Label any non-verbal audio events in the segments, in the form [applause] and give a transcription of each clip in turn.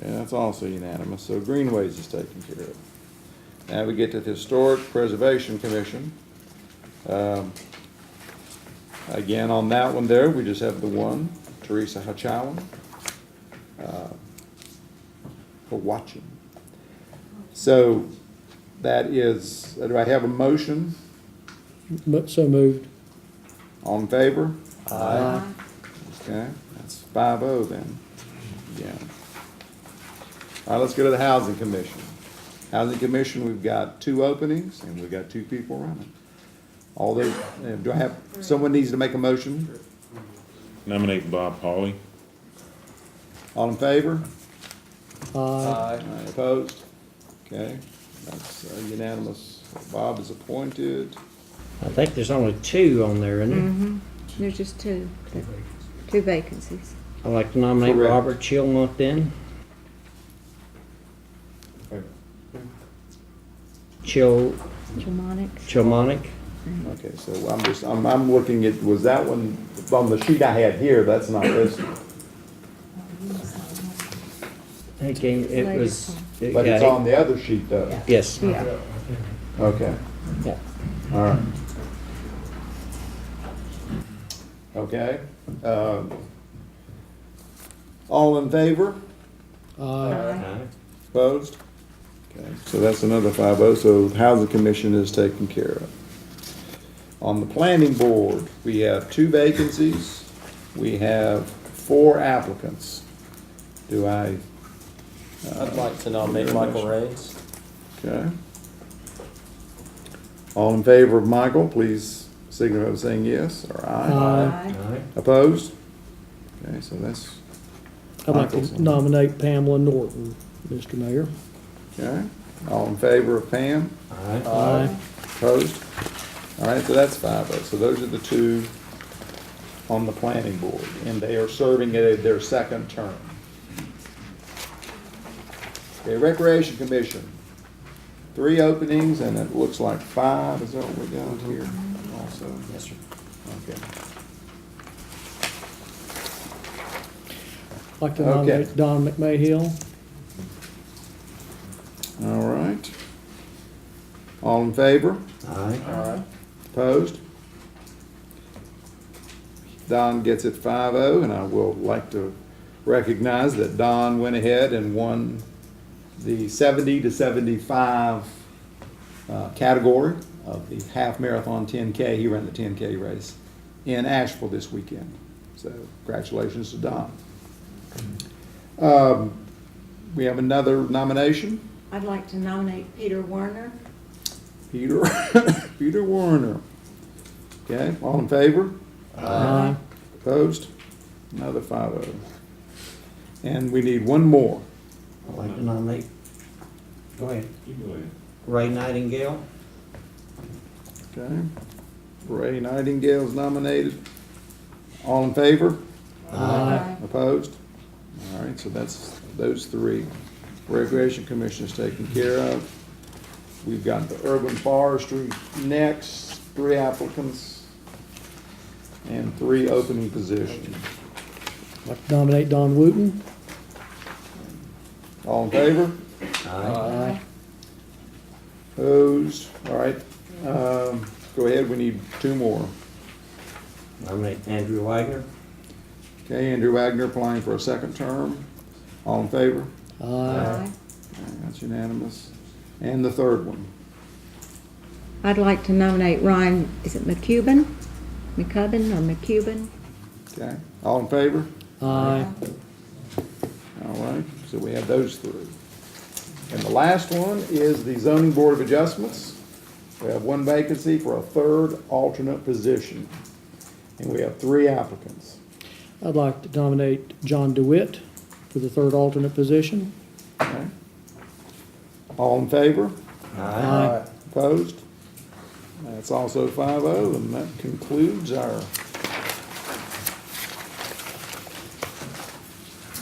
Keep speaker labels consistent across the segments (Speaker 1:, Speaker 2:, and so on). Speaker 1: Okay, that's also unanimous, so Greenways is taken care of. Now we get to the Historic Preservation Commission. Um, Again, on that one there, we just have the one, Teresa Hachawan. uh, For watching. So that is, do I have a motion?
Speaker 2: Mo- So moved.
Speaker 1: All in favor? Aye. Okay, that's five oh then, yeah. All right, let's go to the Housing Commission. Housing Commission, we've got two openings and we've got two people running. All those, uh, do I have, someone needs to make a motion?
Speaker 3: Nominate Bob Pauley.
Speaker 1: All in favor? Aye.
Speaker 2: Aye.
Speaker 1: Opposed? Okay, that's uh, unanimous. Bob is appointed.
Speaker 4: I think there's only two on there, isn't there?
Speaker 5: Mm-hmm. There's just two, two vacancies.
Speaker 4: I'd like to nominate
Speaker 1: Correct.
Speaker 4: Robert Chilmont then. Chil,
Speaker 5: Germanic.
Speaker 4: Chilmonic.
Speaker 1: Okay, so I'm just, I'm, I'm looking at, was that one, on the sheet I had here, that's not listed.
Speaker 4: I think it it was. it
Speaker 1: But it's
Speaker 4: got-
Speaker 1: on the other sheet though.
Speaker 4: Yes.
Speaker 5: Yeah,
Speaker 1: Okay.
Speaker 4: Yeah.
Speaker 1: All right. Okay, um, all in favor?
Speaker 2: Aye.
Speaker 1: Opposed? Okay, so that's another five oh, so Housing Commission is taken care of. On the Planning Board, we have two vacancies, we have four applicants. Do I, uh,
Speaker 6: I'd like to nominate Michael Raines.
Speaker 1: okay? All in favor of Michael, please signify by saying yes or aye.
Speaker 2: Aye.
Speaker 1: Opposed? Okay, so that's,
Speaker 2: Mm-hmm. I'd like
Speaker 1: Michael's.
Speaker 2: to nominate Pamela Norton, Mr. Mayor.
Speaker 1: okay, all in favor of Pam?
Speaker 2: Aye.
Speaker 1: Opposed? All right, so that's five oh. So those are the two on the planning board, and they are serving at their second term. Okay, Recreation Commission, three openings, and it looks like five is what we got here also. Yes, sir. Okay.
Speaker 2: I'd like to
Speaker 1: Okay.
Speaker 2: nominate Don McMahill.
Speaker 1: All right. All in favor?
Speaker 4: Aye.
Speaker 1: Opposed? Don gets it 5-0, and I will like to recognize that Don went ahead and won the seventy to seventy-five uh, category of the half marathon ten K. He ran the ten K race in Asheville this weekend. So congratulations to Don. Um, We have another nomination.
Speaker 7: I'd like to nominate Peter Werner.
Speaker 1: Peter, [laughs] Peter Warner. Okay, all in favor?
Speaker 2: Aye.
Speaker 1: Opposed? Another five oh. And we need one more.
Speaker 4: I'd like to nominate. Go ahead. Ray Nightingale.
Speaker 1: Okay. Ray Nightingale's nominated. All in favor?
Speaker 2: Aye.
Speaker 1: Opposed? All right, so that's, those three. Recreation Commission is taken care of. We've got the Urban Forestry next, three applicants, and three opening positions.
Speaker 2: I'd like to nominate Don Wooten.
Speaker 1: All in favor?
Speaker 2: Aye.
Speaker 1: Opposed? All right, um, go ahead, we need two more.
Speaker 4: Nominate Andrew Wagner.
Speaker 1: Okay, Andrew Wagner applying for a second term. All in favor?
Speaker 2: Aye.
Speaker 1: All right, That's unanimous. And the third one.
Speaker 5: I'd like to nominate Ryan, is it McCubbin? McCubbin or McCubbin?
Speaker 1: Okay, all in favor?
Speaker 2: Aye.
Speaker 1: All right, so we have those three. And the last one is the zoning board of adjustments. We have one vacancy for a third alternate position. And we have three applicants.
Speaker 2: I'd like to nominate John DeWitt for the third alternate position.
Speaker 1: Okay? All in favor?
Speaker 2: Aye.
Speaker 1: Opposed? That's also five oh, and that concludes our.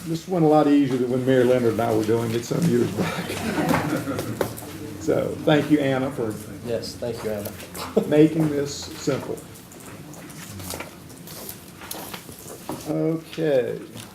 Speaker 1: This went a lot easier than when Mary Leonard and I were doing it some years back. [laughs] So, thank you, Anna, for
Speaker 6: Yes, thank you, Anna.
Speaker 1: making this simple. Okay. uh,